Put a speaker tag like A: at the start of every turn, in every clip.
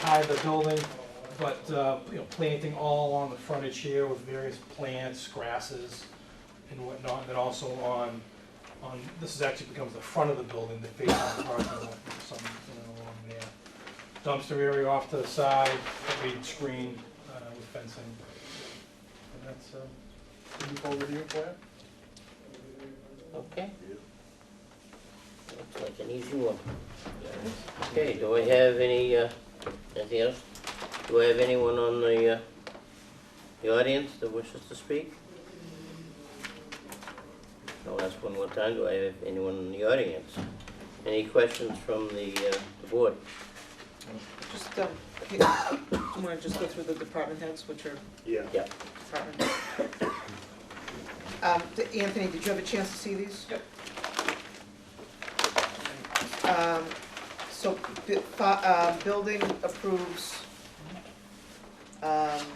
A: side of the building, but, uh, you know, planting all along the frontage here with various plants, grasses and whatnot, and then also on, on, this is actually becomes the front of the building, the face of the parking lot, something along there. Dumpster area off to the side, a reed screen uh, with fencing. And that's, uh,
B: Can you forward your plan?
C: Okay. Looks like an easy one. Okay, do I have any, uh, anything else? Do I have anyone on the, uh, the audience that wishes to speak? I'll ask one more time, do I have anyone in the audience? Any questions from the, uh, the board?
D: Just, um, you wanna just go through the department heads, which are
B: Yeah.
D: department. Um, d- Anthony, did you have a chance to see these? Yep. Um, so, bu- fi- uh, building approves, um,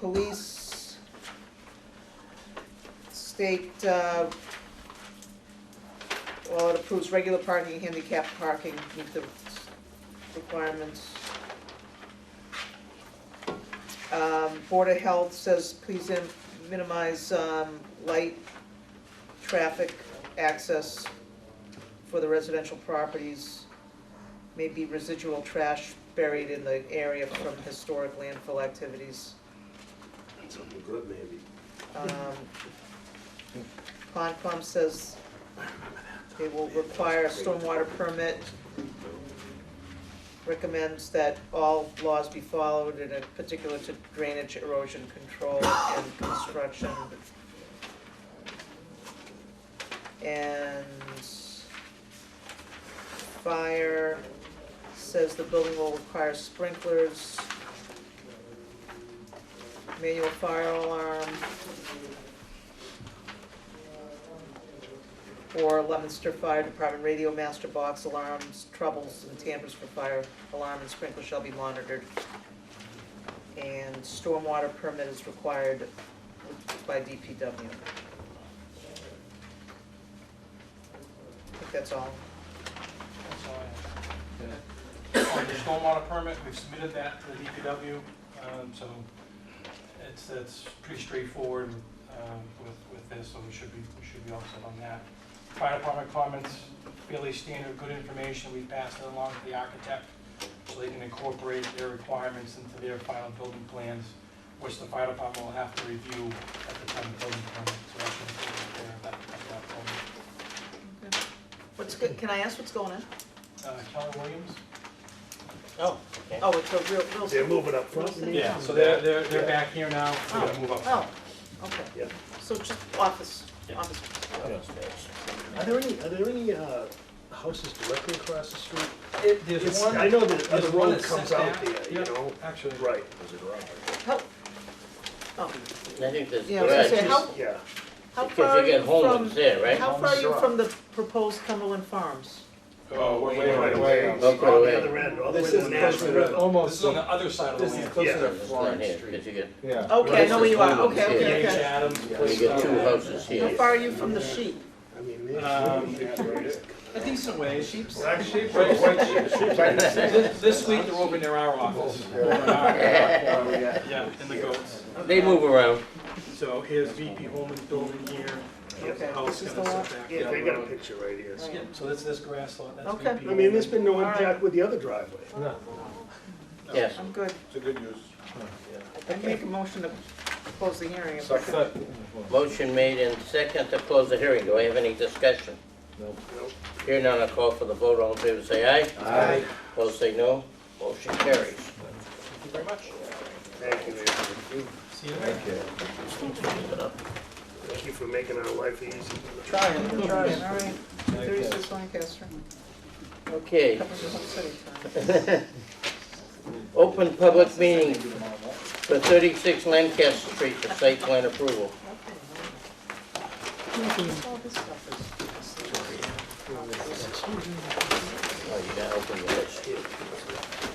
D: police, state, uh, well, it approves regular parking, handicap parking, meet the requirements. Um, Board of Health says please im- minimize, um, light, traffic, access for the residential properties. Maybe residual trash buried in the area from historic landfill activities.
B: Something good, maybe.
D: Um, Concom says they will require a stormwater permit. Recommends that all laws be followed, and in particular to drainage, erosion control, and construction. And fire says the building will require sprinklers, manual fire alarm, or Leominster Fire Department radio master box alarms, troubles and tampers for fire alarm and sprinkler shall be monitored. And stormwater permit is required by DPW. I think that's all.
A: that's all I have. On the stormwater permit, we've submitted that to the DPW, um, so it's, it's pretty straightforward, um, with, with this, so we should be, we should be all set on that. Fire department comments, fairly standard, good information, we passed it along to the architect, so they can incorporate their requirements into their final building plans, which the fire department will have to review at the time of building permit, so that's important there, at that, at that point.
D: What's, go- can I ask what's going on?
A: Uh, Keller Williams?
C: Oh, okay.
D: Oh, it's a real, real.
B: They're moving up front.
A: Yeah, so they're, they're, they're back here now, we gotta move up.
D: Oh, okay.
B: Yeah.
D: So just office,
A: Yeah.
D: office.
B: Are there any, are there any, uh, houses directly across the street?
A: It,
B: It's- I know that
A: there's
B: the
A: oh. one
B: road
A: that's
B: comes
A: set
B: out
A: back,
B: there, you
A: yeah.
B: know?
A: Actually,
B: Right.
D: How, oh,
C: I think there's
D: yeah, I was
C: garage,
D: gonna say, how,
B: Yeah.
D: how far
C: because
D: are
C: you
D: you
C: get homes
D: from,
C: there, right?
D: how far are you from the proposed Cumberland Farms?
A: oh, wait, wait,
B: Right
A: wait.
B: away.
C: Oh,
B: On
C: right away.
B: the other end, all the way
E: This
B: to
E: is
B: Manassas.
E: closer to,
A: This
E: almost,
A: is on the other side of the
E: this is
A: land.
B: Yeah.
E: closer to
C: It's not
E: Florence
C: here,
E: Street.
C: 'cause you get,
E: Yeah.
D: Okay, I
C: Right,
D: know where you are,
C: it's
D: okay,
C: Yeah.
A: James
D: okay, okay.
A: Adams.
C: you get two houses
D: How
C: here.
D: far are you from the sheep?
B: I mean, they-
A: Um, A decent way. Right, right. This this week, they're over near our office. Over in our- Yeah, in the goats.
C: They move around.
A: So here's VP Holman's building here, here's the
D: Okay,
A: house
D: this is
A: gonna
D: the lot?
A: sit back.
B: Yeah, they got a picture right here.
A: Yeah, So that's this grass lot, that's
D: Okay.
A: VP.
B: I mean, there's been no
D: All right.
B: impact with the other driveway.
C: Yes.
D: I'm good.
E: It's a good use.
D: I make a motion to close the hearing. if we
E: Second.
D: could.
C: Motion made and second to close the hearing. Do I have any discussion?
B: Nope.
C: Here none, I call for the vote. All in favor, say aye. Aye. Opposed, say no. Motion carries.
A: Thank you very much.
B: Thank you, Anthony.
A: See you later.
B: Thank you for making our life easy.
D: All right, thirty-six Lancaster,
C: Okay.
D: that was just on city time.
C: Open public meeting for 36 Lancaster Street for site plan approval.
D: All this stuff is-
C: Oh, you gotta open the list.